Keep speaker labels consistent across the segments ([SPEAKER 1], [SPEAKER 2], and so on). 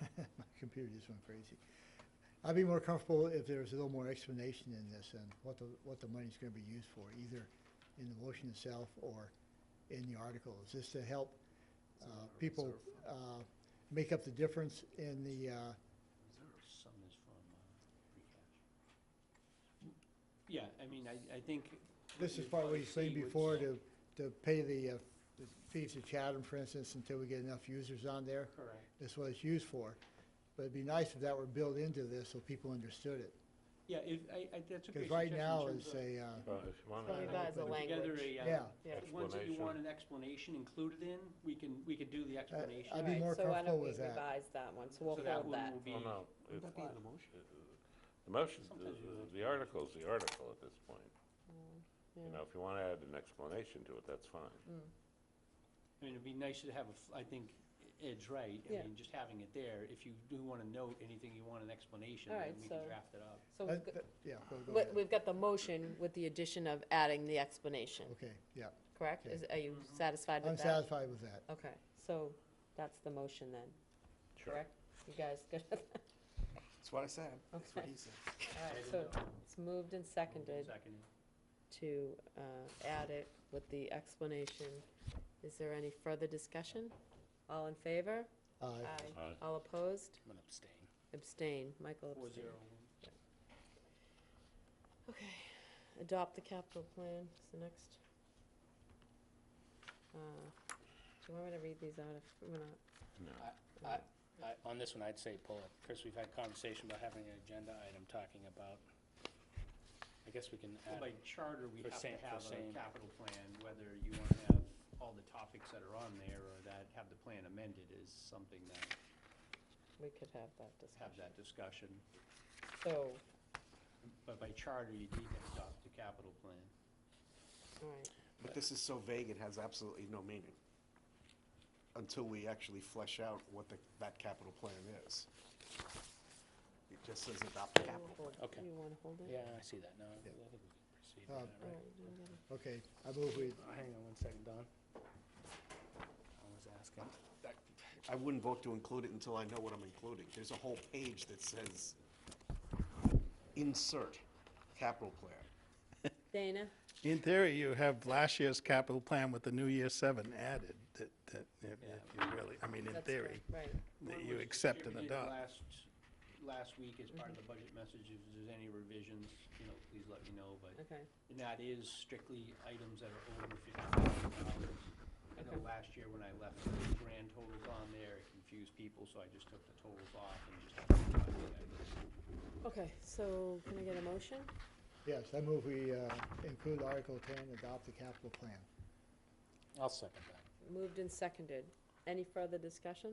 [SPEAKER 1] computer just went crazy. I'd be more comfortable if there was a little more explanation in this and what the, what the money's gonna be used for, either in the motion itself or in the article. Is this to help, uh, people, uh, make up the difference in the, uh,
[SPEAKER 2] Some is from uh, free cash. Yeah, I mean, I, I think.
[SPEAKER 1] This is
[SPEAKER 2] you'd
[SPEAKER 1] part what
[SPEAKER 2] probably
[SPEAKER 1] you saying
[SPEAKER 2] see would
[SPEAKER 1] before
[SPEAKER 2] say-
[SPEAKER 1] to, to pay the, uh, the fees to Chatham, for instance, until we get enough users on there.
[SPEAKER 2] Correct.
[SPEAKER 1] That's what it's used for. But it'd be nice if that were built into this so people understood it.
[SPEAKER 2] Yeah, if, I, I, that's a
[SPEAKER 1] Because right
[SPEAKER 2] great suggestion in
[SPEAKER 1] now
[SPEAKER 2] terms
[SPEAKER 1] it's
[SPEAKER 2] of-
[SPEAKER 1] a, uh,
[SPEAKER 3] Well, if you want
[SPEAKER 2] Uh,
[SPEAKER 4] Well,
[SPEAKER 3] to add
[SPEAKER 4] we've got as a
[SPEAKER 2] put together
[SPEAKER 4] language.
[SPEAKER 2] a, uh,
[SPEAKER 1] yeah,
[SPEAKER 2] Ones that you
[SPEAKER 3] Explanation.
[SPEAKER 2] want an explanation included in, we can, we could do the explanation.
[SPEAKER 1] Uh, I'd be
[SPEAKER 4] Right,
[SPEAKER 1] more
[SPEAKER 4] so why
[SPEAKER 1] comfortable
[SPEAKER 4] don't we
[SPEAKER 1] with that.
[SPEAKER 4] revise that one, so we'll
[SPEAKER 2] So that
[SPEAKER 4] hold
[SPEAKER 2] one
[SPEAKER 4] that.
[SPEAKER 2] will be.
[SPEAKER 3] well, no,
[SPEAKER 2] Would
[SPEAKER 3] it's, uh,
[SPEAKER 2] that be in the motion?
[SPEAKER 3] the motion, the-
[SPEAKER 2] Sometimes you like-
[SPEAKER 3] the article's the article at this point. You
[SPEAKER 4] yeah.
[SPEAKER 3] know, if you want to add an explanation to it, that's fine.
[SPEAKER 2] I mean, it'd be nice to have, a f- I think Ed's right. I
[SPEAKER 4] Yeah.
[SPEAKER 2] mean, just having it there, if you do want to note anything, you want an explanation,
[SPEAKER 4] All
[SPEAKER 2] then
[SPEAKER 4] right,
[SPEAKER 2] we
[SPEAKER 4] so-
[SPEAKER 2] can draft it up.
[SPEAKER 4] So
[SPEAKER 1] that-
[SPEAKER 4] we've got-
[SPEAKER 1] that- Uh, yeah, go, go
[SPEAKER 4] we-
[SPEAKER 1] ahead.
[SPEAKER 4] we've got the motion with the addition of adding the explanation,
[SPEAKER 1] Okay, yeah.
[SPEAKER 4] correct?
[SPEAKER 1] Okay.
[SPEAKER 4] Is, are you satisfied
[SPEAKER 1] I'm
[SPEAKER 4] with that?
[SPEAKER 1] satisfied with that.
[SPEAKER 4] Okay, so that's the motion then,
[SPEAKER 3] Sure.
[SPEAKER 4] correct? You guys good? All
[SPEAKER 5] That's what I said. That's what
[SPEAKER 4] Okay.
[SPEAKER 5] he said.
[SPEAKER 4] right, so it's moved and seconded
[SPEAKER 2] Seconded.
[SPEAKER 4] to uh, add it with the explanation. Is there any further discussion? All in favor?
[SPEAKER 1] Uh,
[SPEAKER 3] Aye.
[SPEAKER 4] All opposed?
[SPEAKER 2] I'm going to abstain.
[SPEAKER 4] Abstain. Michael
[SPEAKER 2] Four
[SPEAKER 4] abstain.
[SPEAKER 2] zero.
[SPEAKER 4] Okay, adopt the capital plan is the next. Uh, Do you want me to read these out if, we're not?
[SPEAKER 3] No.
[SPEAKER 6] I- On this one, I'd say pull it. Chris, we've had conversation about having an agenda item talking about, I guess we can
[SPEAKER 2] Well,
[SPEAKER 6] add,
[SPEAKER 2] By charter, we
[SPEAKER 6] For
[SPEAKER 2] have to
[SPEAKER 6] same- for
[SPEAKER 2] have a
[SPEAKER 6] same.
[SPEAKER 2] capital plan, whether you want to have all the topics that are on there or that have the plan amended is something that,
[SPEAKER 4] We could have that
[SPEAKER 2] have
[SPEAKER 4] discussion.
[SPEAKER 2] that discussion.
[SPEAKER 4] So,
[SPEAKER 2] But by charter, you need to adopt the capital plan.
[SPEAKER 4] all right,
[SPEAKER 5] But this is so vague, it has absolutely no meaning until we actually flesh out what the, that capital plan is. It just says adopt the
[SPEAKER 4] so
[SPEAKER 5] capital
[SPEAKER 4] we'll
[SPEAKER 5] plan.
[SPEAKER 4] hold-
[SPEAKER 6] Okay.
[SPEAKER 4] you want to hold it?
[SPEAKER 6] yeah, I see that, no, I think we can proceed
[SPEAKER 1] Um,
[SPEAKER 6] with that,
[SPEAKER 4] All
[SPEAKER 6] right?
[SPEAKER 4] right, you got it.
[SPEAKER 1] Okay, I move we,
[SPEAKER 6] Uh, Hang on one second, Don. I was asking.
[SPEAKER 5] I wouldn't vote to include it until I know what I'm including. There's a whole page that says insert capital plan.
[SPEAKER 4] Dana,
[SPEAKER 7] In theory, you have last year's capital plan with the new year seven added, that, that, if if you really, I mean, in
[SPEAKER 4] that's
[SPEAKER 7] theory,
[SPEAKER 4] correct, right.
[SPEAKER 7] that
[SPEAKER 2] What
[SPEAKER 7] you
[SPEAKER 2] was
[SPEAKER 7] accept and
[SPEAKER 2] distributed
[SPEAKER 7] adopt.
[SPEAKER 2] Last, last week as part of the budget message, if there's any revisions, you know, please let me know, but
[SPEAKER 4] Okay,
[SPEAKER 2] and that is strictly items that are over fifty thousand dollars. I know last year when I left the grand totals on there, it confused people, so I just took the totals off and just.
[SPEAKER 4] okay, so can I get a motion?
[SPEAKER 1] yes, I move we, uh, include Article ten, adopt the capital plan.
[SPEAKER 6] I'll second that.
[SPEAKER 4] Moved and seconded. Any further discussion?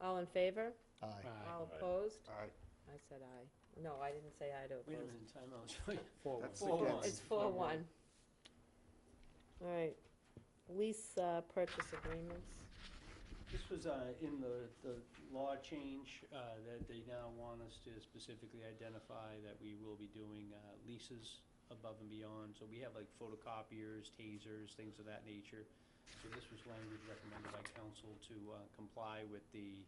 [SPEAKER 4] All in favor?
[SPEAKER 1] Aye.
[SPEAKER 6] Aye.
[SPEAKER 4] All
[SPEAKER 3] Aye.
[SPEAKER 4] opposed?
[SPEAKER 5] All right,
[SPEAKER 4] I said aye. No, I didn't say aye to
[SPEAKER 2] Wait a
[SPEAKER 4] opposed.
[SPEAKER 2] minute, timeout.
[SPEAKER 6] Four, one.
[SPEAKER 5] That's
[SPEAKER 2] Four
[SPEAKER 5] against-
[SPEAKER 2] one.
[SPEAKER 4] It's four one. All right, lease uh, purchase agreements.
[SPEAKER 2] This was uh, in the, the law change uh, that they now want us to specifically identify that we will be doing uh, leases above and beyond. So we have like photocopiers, tasers, things of that nature. So this was language recommended by council to uh, comply with the,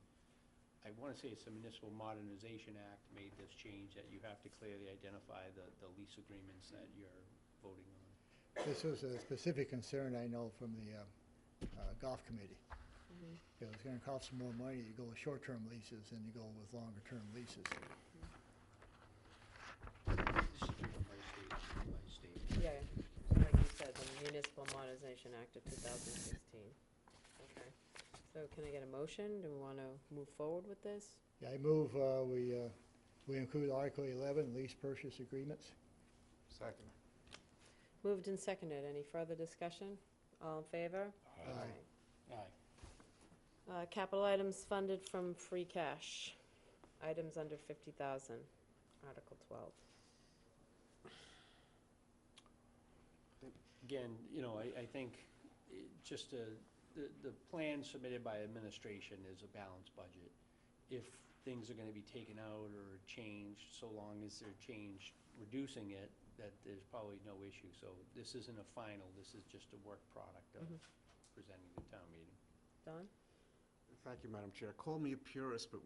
[SPEAKER 2] I want to say it's the Municipal Modernization Act made this change that you have to clearly identify the, the lease agreements that you're voting on.
[SPEAKER 1] This was a specific concern I know from the, uh, uh, golf committee. It was gonna cost some more money to go with short-term leases than to go with longer-term leases.
[SPEAKER 2] This is driven by state, by state.
[SPEAKER 4] Yeah, like you said, the Municipal Modernization Act of 2016. Okay, so can I get a motion? Do we want to move forward with this?
[SPEAKER 1] Yeah, I move, uh, we, uh, we include Article eleven, lease purchase agreements.
[SPEAKER 5] second.
[SPEAKER 4] Moved and seconded. Any further discussion? All in favor?
[SPEAKER 1] Aye.
[SPEAKER 6] Aye.
[SPEAKER 4] Uh, Capital items funded from free cash. Items under 50,000, Article 12.
[SPEAKER 2] again, you know, I, I think it- just uh, the, the plan submitted by administration is a balanced budget. If things are gonna be taken out or changed, so long as they're changed, reducing it, that there's probably no issue. So this isn't a final, this is just a work product of presenting the town meeting.
[SPEAKER 4] Don?
[SPEAKER 5] Thank you, Madam Chair. Call me a purist, but